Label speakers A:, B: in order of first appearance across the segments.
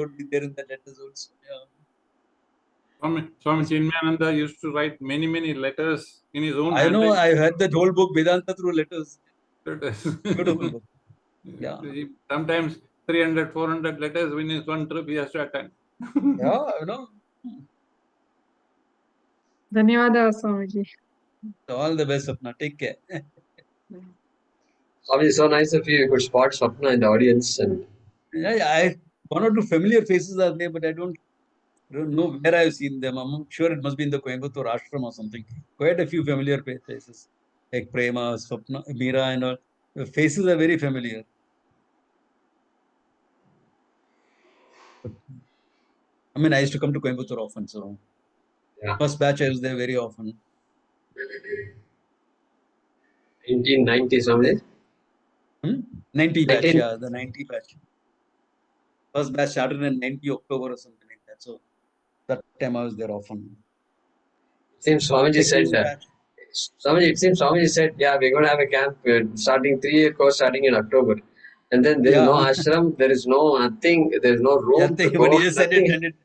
A: would be there in the letters also. Yeah.
B: Swami, Swami Chinmayananda used to write many, many letters in his own
A: I know.
B: handwriting.
A: I had that whole book Vedanta through letters. Beautiful
B: Letters.
A: book. Yeah.
B: He- Sometimes 300, 400 letters in his one trip he has to attend.
A: Yeah, you know.
C: ಧನ್ಯವಾದ Swamiji
A: All the best, Sapna. Take care.
D: Swami, so nice of you. You could spot Swapna in the audience and
A: Yeah, I one or two familiar faces are there, but I don't don't know where I've seen them. I'm sure it must be in the Coimbatore ashram or something. Quite a few familiar pa- faces, like Prema, Swapna, Meera, and all. The faces are very familiar. I mean, I used to come to Coimbatore often, so
D: Yeah.
A: first batch I was there very often.
D: 1990 Swami.
A: Hmm? 90 batch,
D: 19
A: yeah, the 90 batch. First batch started in 90 October or something like that. So that time I was there often.
D: It seems Swamiji
A: Second
D: said, uh,
A: batch.
D: Swamiji, it seems Swamiji said, yeah, we're going to have a camp uh, starting three year course starting in October. And then there is no
A: Yeah.
D: ashram, there is no nothing, there is no room.
A: Yeah,
D: to
A: they-
D: go,
A: but he just said it,
D: nothing.
A: and it.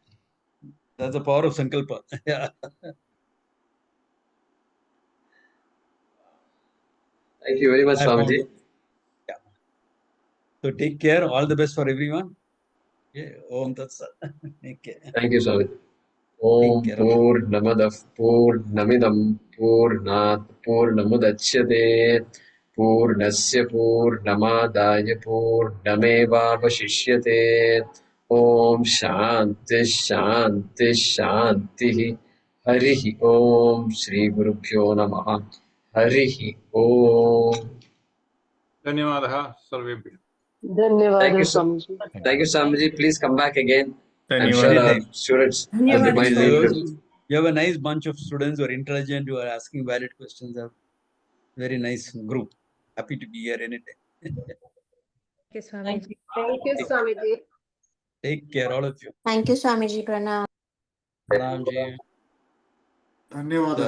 A: That's the power of sankalpa. Yeah.
D: Thank you very much,
A: I found
D: Swamiji.
A: it. Yeah. So take care. All the best for everyone. Yeah. Om Tat Sat. Take care.
D: Thank you, Swami. Om
A: care.
D: Purnamadav Purnamidam Purnat Purnamudachyate Purnasya Purnamadaya Purnamevavashishyate Om Shanti Shanti Shantihi Harihi Om Shri Guru Pyo Namaha Harihi Om
B: Dhanyavadaha sarvebhyah.
D: Thank
E: ಧನ್ಯವಾದ
D: you, sir.
E: Swamiji
D: Thank you, Swamiji. Please come back again. I'm sure
A: Dhanyavad.
D: our students have
C: ಧನ್ಯವಾದ
D: reminded
A: You
D: you.
A: have, you have a nice bunch of students who are intelligent, who are asking valid questions. A very nice group. Happy to be here anytime.
F: Thank you, Swami.
E: Thank you Swamiji
A: Take care, all of you.
G: Thank you, Swamiji Pranam.
A: Pranam ji.
H: ಧನ್ಯವಾದ